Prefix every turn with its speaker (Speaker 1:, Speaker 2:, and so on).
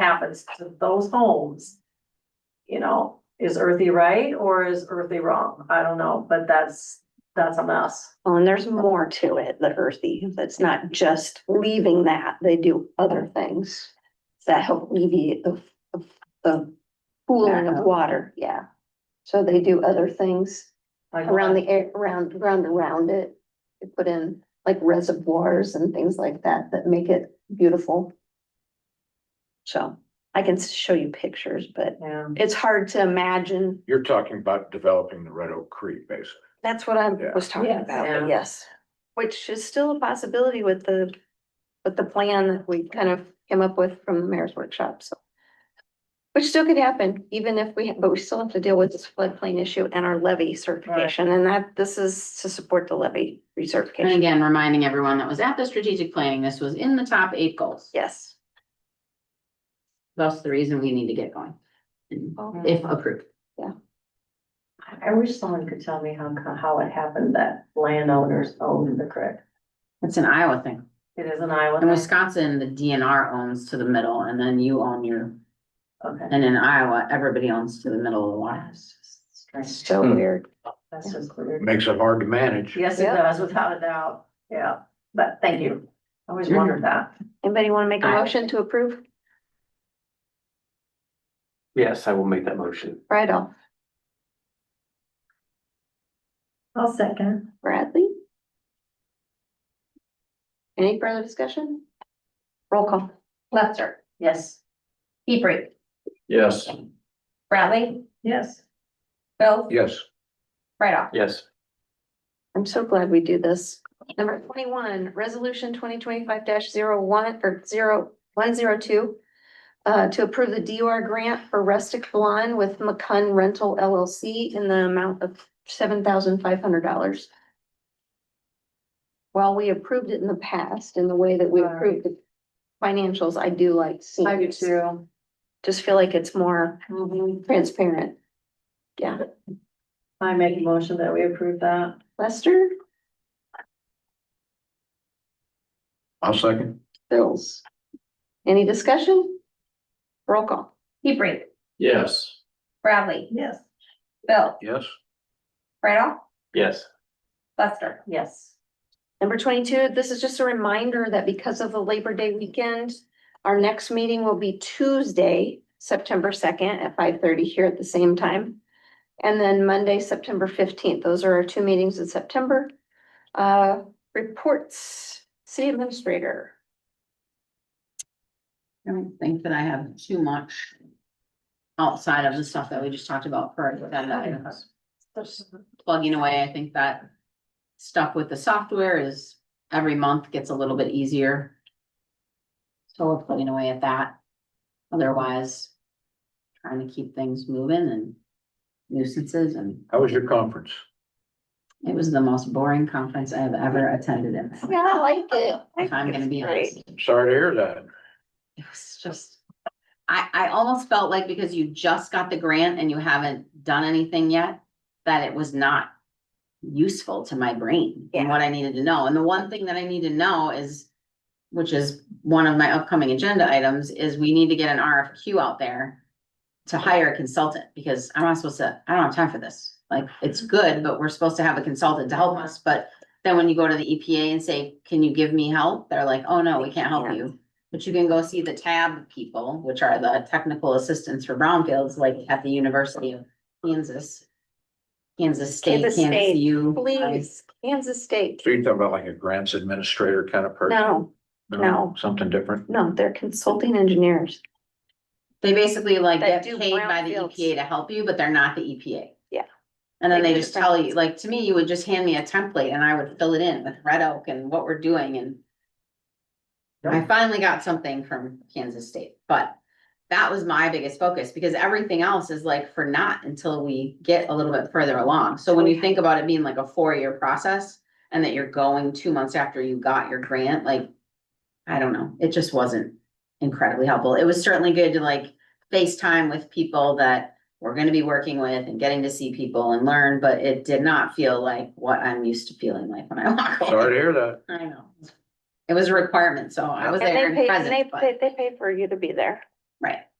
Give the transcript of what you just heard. Speaker 1: happens to those homes. You know, is earthy right or is earthy wrong? I don't know, but that's, that's a mess.
Speaker 2: Well, and there's more to it, the earthy, that's not just leaving that, they do other things that help alleviate the, of- the pooling of water, yeah. So they do other things
Speaker 1: Like,
Speaker 2: around the air, around, around, around it. They put in like reservoirs and things like that that make it beautiful. So I can show you pictures, but
Speaker 1: Yeah,
Speaker 2: it's hard to imagine.
Speaker 3: You're talking about developing the Red Oak Creek, basically.
Speaker 2: That's what I
Speaker 3: Yeah.
Speaker 2: was talking
Speaker 1: Yes.
Speaker 2: about,
Speaker 1: Yeah.
Speaker 2: but yes. Which is still a possibility with the, with the plan that we kind of came up with from the mayor's workshop, so. Which still could happen, even if we, but we still have to deal with this floodplain issue and our levy certification, and that, this is to support the levy
Speaker 4: And
Speaker 2: recertification.
Speaker 4: again, reminding everyone that was at the strategic planning, this was in the top eight goals.
Speaker 2: Yes.
Speaker 4: That's the reason we need to get going. And If approved.
Speaker 1: I- I wish someone could tell me how, co- how it happened that landowners owned the creek.
Speaker 4: It's an Iowa thing.
Speaker 1: It is an
Speaker 4: In
Speaker 1: island.
Speaker 4: Wisconsin, the DNR owns to the middle and then you own your,
Speaker 1: Okay.
Speaker 4: and in Iowa, everybody owns to the middle of the water.
Speaker 1: That's just strange.
Speaker 2: So
Speaker 3: Hmm.
Speaker 2: weird.
Speaker 1: That's just weird.
Speaker 3: Makes it hard to manage.
Speaker 1: Yes, it
Speaker 2: Yeah.
Speaker 1: does, without a doubt. Yeah, but thank you. I always
Speaker 4: Mhm.
Speaker 1: wondered that.
Speaker 2: Anybody want to make a
Speaker 4: Aye.
Speaker 2: motion to approve?
Speaker 5: Yes, I will make that motion.
Speaker 2: Right off,
Speaker 1: I'll second.
Speaker 2: Bradley? Any further discussion? Roll call.
Speaker 6: Lester,
Speaker 1: Yes.
Speaker 6: Hebrink,
Speaker 3: Yes.
Speaker 6: Bradley,
Speaker 1: Yes.
Speaker 6: Bill,
Speaker 3: Yes,
Speaker 6: right off.
Speaker 5: Yes,
Speaker 2: I'm so glad we do this. Number twenty-one, resolution twenty twenty-five one or zero, one zero two. Uh, to approve the DUR grant for rustic lawn with McCunn Rental LLC in the amount of seven thousand five hundred dollars. While we approved it in the past in the way that we
Speaker 1: Right.
Speaker 2: approved the financials, I do like seeing.
Speaker 1: I do
Speaker 2: this.
Speaker 1: too.
Speaker 2: Just feel like it's more Mm-hmm. transparent.
Speaker 1: I make a motion that we approve that.
Speaker 2: Lester,
Speaker 3: I'll second.
Speaker 2: Bills. Any discussion? Roll call.
Speaker 6: Hebrink,
Speaker 5: yes,
Speaker 6: Bradley,
Speaker 1: Yes.
Speaker 6: Bill,
Speaker 3: Yes.
Speaker 6: right off.
Speaker 5: yes,
Speaker 6: Lester,
Speaker 1: Yes.
Speaker 2: Number twenty-two, this is just a reminder that because of the Labor Day weekend, our next meeting will be Tuesday, September second at five thirty here at the same time. And then Monday, September fifteenth. Those are our two meetings in September. Uh, reports, city administrator.
Speaker 4: I don't think that I have too much outside of the stuff that we just talked about for
Speaker 1: pues
Speaker 4: our agenda items. plugging away, I think that stuff with the software is every month gets a little bit easier. So we're plugging away at that. Otherwise, trying to keep things moving and nuisances and
Speaker 3: How was your conference?
Speaker 4: it was the most boring conference I have ever attended in. my life,
Speaker 2: Yeah, I like it.
Speaker 4: If I'm gonna be honest,
Speaker 3: Sorry to hear that.
Speaker 4: it was just, I, I almost felt like because you just got the grant and you haven't done anything yet, that it was not useful to my brain and
Speaker 2: Yeah.
Speaker 4: what I needed to know. And the one thing that I need to know is, which is one of my upcoming agenda items, is we need to get an RFQ out there to hire a consultant, because I'm not supposed to, I don't have time for this. Like, it's good, but we're supposed to have a consultant to help us, but then when you go to the EPA and say, can you give me help? They're like, oh no, we can't help you. But you can go see the TAB people, which are the technical assistants for brownfields, like at the University of Kansas. Kansas State,
Speaker 2: Kansas
Speaker 4: Kansas
Speaker 2: State,
Speaker 4: U.
Speaker 2: Please, Kansas State.
Speaker 3: So you're talking about like a grants administrator kind of person?
Speaker 2: No, no.
Speaker 3: Something different?
Speaker 2: no, they're consulting engineers.
Speaker 4: They basically like
Speaker 2: That
Speaker 4: get
Speaker 2: do
Speaker 4: paid by the
Speaker 2: brownfields.
Speaker 4: EPA to help you, but they're not the EPA.
Speaker 2: Yeah.
Speaker 4: And then
Speaker 2: They
Speaker 4: they
Speaker 2: do
Speaker 4: just
Speaker 2: the
Speaker 4: tell you, like, to me, you would just hand me a template and I would fill it in with Red Oak and what we're doing and. I finally got something from Kansas State, but that was my biggest focus because everything else is like for not until we get a little bit further along. So
Speaker 2: Oh,
Speaker 4: when you think about it being like a four-year process and that you're going two months after you got your grant, like, I don't know, it just wasn't incredibly helpful. It was certainly good to like FaceTime with people that we're gonna be working with and getting to see people and learn, but it did not feel like what I'm used to feeling like when I walk
Speaker 3: Sorry
Speaker 4: away.
Speaker 3: to hear that.
Speaker 4: I know. It was a requirement, so I was
Speaker 2: And they
Speaker 4: there and
Speaker 2: pay, and
Speaker 4: present,
Speaker 2: they
Speaker 4: but
Speaker 2: pay, they pay for you to be there.
Speaker 4: Right.